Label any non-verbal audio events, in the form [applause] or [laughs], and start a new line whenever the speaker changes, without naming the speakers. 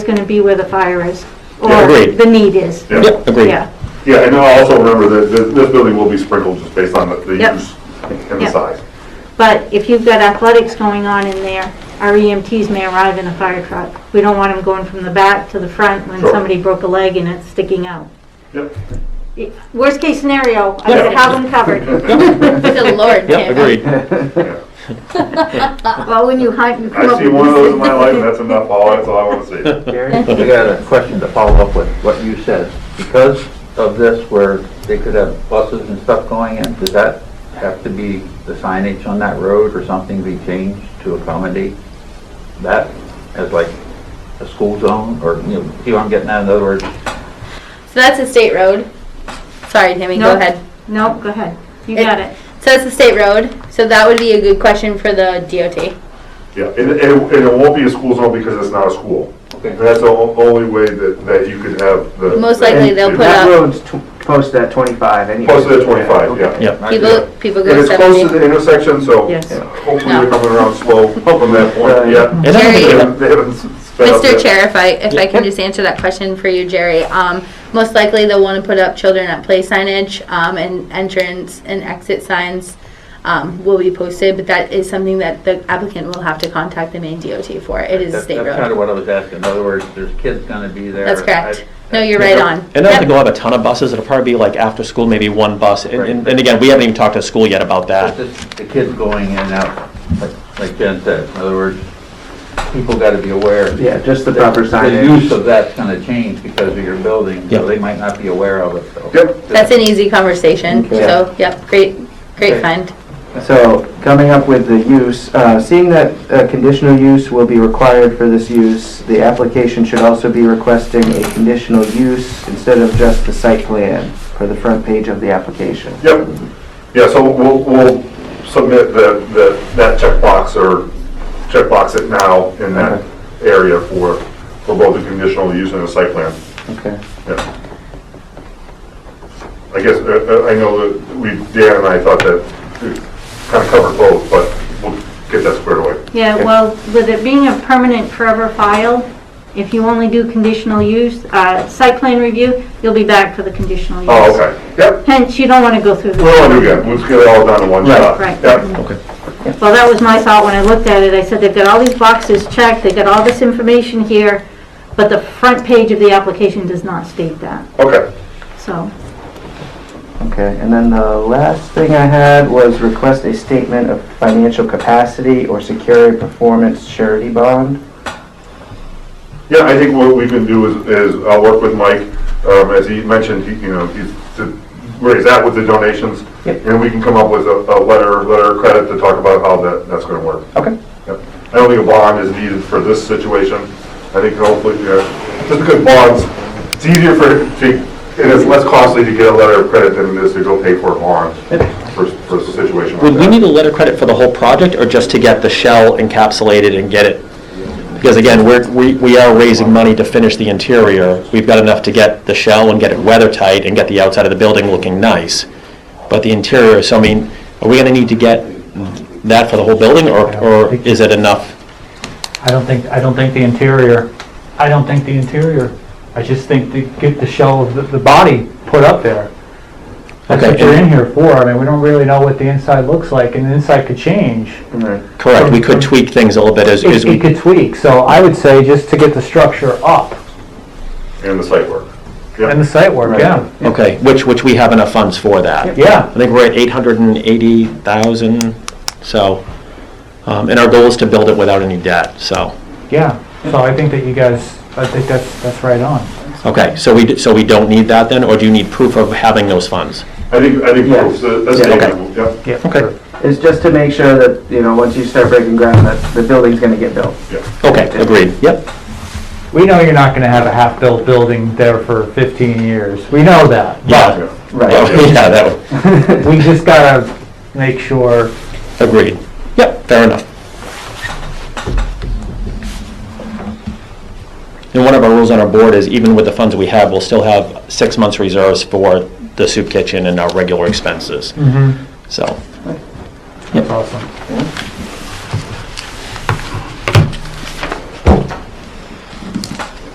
it's going to be where the fire is,
Yeah,
or
agreed.
the need is.
Yeah.
Yep, agreed.
Yeah,
Yeah, and I also remember that th- this building will be sprinkled just based on the the
Yep.
use and the
Yep.
size.
but if you've got athletics going on in there, our EMTs may arrive in a fire truck. We don't want them going from the back to the front when
Sure.
somebody broke a leg and it's sticking out.
Yep.
It- Worst case scenario, I
Yeah.
would have them
[laughs]
covered.
Good lord,
[laughs] Yep,
Tim.
agreed.
Yeah.
[laughs] Well, when you hunt, you come
I've
up
seen one of those in my life, and
with
that's enough, all, that's all I want to see.
Gary, I got a question to follow up with what you said. Because of this, where they could have buses and stuff going in, does that have to be, the signage on that road or something be changed to accommodate that as like a school zone, or, you know, see what I'm getting at, in other words?
So that's a state road. Sorry, Timmy, go
Nope.
ahead.
No, go ahead, you
It-
got it.
So that's a state road. So that would be a good question for the DOT.
Yeah, and and it and it won't be a school zone because it's not a school.
Okay.
That's the o- only way that, that you could have the.
Most likely they'll put
That
up-
road's tw- close to that 25 anyway.
Close to that 25, yeah.
Yep.
People, people
And
go
it's close to
seventy.
the intersection, so
Yes.
hopefully
No.
they're coming around slow from that
[laughs]
point, yeah.
And I don't think
They
it-
haven't- they haven't s- sped up
Mr.
yet.
Chair, if I, if I
Yeah.
can just answer that question for you, Jerry. Um, most likely they'll want to put up children at play signage, um, and entrance and exit signs, um, will be posted, but that is something that the applicant will have to contact the main DOT for. It is a
That-
state
That's kind
road.
of what I was asking. In other words, there's kids gonna be there.
That's correct.
I-
No, you're right
Yeah.
on.
And I don't
Yep.
think we'll have a ton of buses, it'll probably be like after school, maybe one bus. And- And, and again, we haven't even talked to school yet about that.
It's just the kids going in and out, like- like Jen said. In other words, people gotta be aware.
Yeah, just the proper
The
signage.
use of that's gonna change because of your building,
Yeah.
so they might not be aware of it, so.
Yep.
That's an easy conversation,
Okay.
so, yep, great, great
Okay.
find.
So, coming up with the use, uh, seeing that uh, conditional use will be required for this use, the application should also be requesting a conditional use instead of just the site plan for the front page of the application.
Yep. Yeah, so we'll, we'll submit the, the, that checkbox or checkbox it now in that area for, for both the conditional use and the site plan.
Okay.
Yeah. I guess, uh, uh, I know that we, Dan and I thought that kind of covered both, but we'll get that squared away.
Yeah, well, with it being a permanent forever file, if you only do conditional use, uh, site plan review, you'll be back for the conditional use.
Oh, okay. Yep.
Hence, you don't want to go through the...
We'll all do that. We'll just get it all done in one
Right.
shot.
Right.
Yep.
Okay.
Well, that was my thought when I looked at it. I said, they've got all these boxes checked, they've got all this information here, but the front page of the application does not state that,
Okay.
so.
Okay, and then the last thing I had was request a statement of financial capacity or secure a performance surety bond.
Yeah, I think what we can do is, is I'll work with Mike, um, as he mentioned, he, you know, he's, to- where he's at with the donations.
Yep.
And we can come up with a, a letter, letter of credit to talk about how that, that's gonna work.
Okay.
Yep. I don't think a bond is needed for this situation. I think hopefully, yeah, just because bonds, it's easier for, to, and it's less costly to get a letter of credit than it is to go pay for a bond for, for a situation like
Would we
that.
need a letter of credit for the whole project or just to get the shell encapsulated and get it? Because again, we're, we, we are raising money to finish the interior. We've got enough to get the shell and get it weather tight and get the outside of the building looking nice. But the interior, so I mean, are we gonna need to get that for the whole building or, or is it enough?
I don't think, I don't think the interior, I don't think the interior, I just think to get the shell of the, the body put up there. That's what
Okay,
you're
and-
in here for, I mean, we don't really know what the inside looks like, and the inside could change.
Correct, we could tweak things a little bit as, as
It
we.
it could tweak, so I would say just to get the structure up,
And the site work.
and the
Yep.
site work, yeah,
Okay, which, which we have enough funds for that. I
yeah.
think we're at 880,000, so, um, and our goal is to build it without any debt, so.
Yeah, so I think that you guys, I think that's, that's right on.
Okay, so we, d- so we don't need that then, or do you need proof of having those funds?
I think, I think
Yeah.
that's, that's
Yeah.
statement, yep.
Yeah.
Okay.
It's just to make sure that, you know, once you start breaking ground, that the building's gonna get built.
Okay, agreed, yep,
We know you're not gonna have a half-built building there for fifteen years, we know that,
yeah.
but
Yeah.
Right.
[laughs] Yeah, that,
we just gotta make sure
agreed, yep, fair enough. And one of our rules on our board is even with the funds we have, we'll still have six months reserves for Mm-hmm. the soup kitchen and our regular expenses, so.
That's awesome.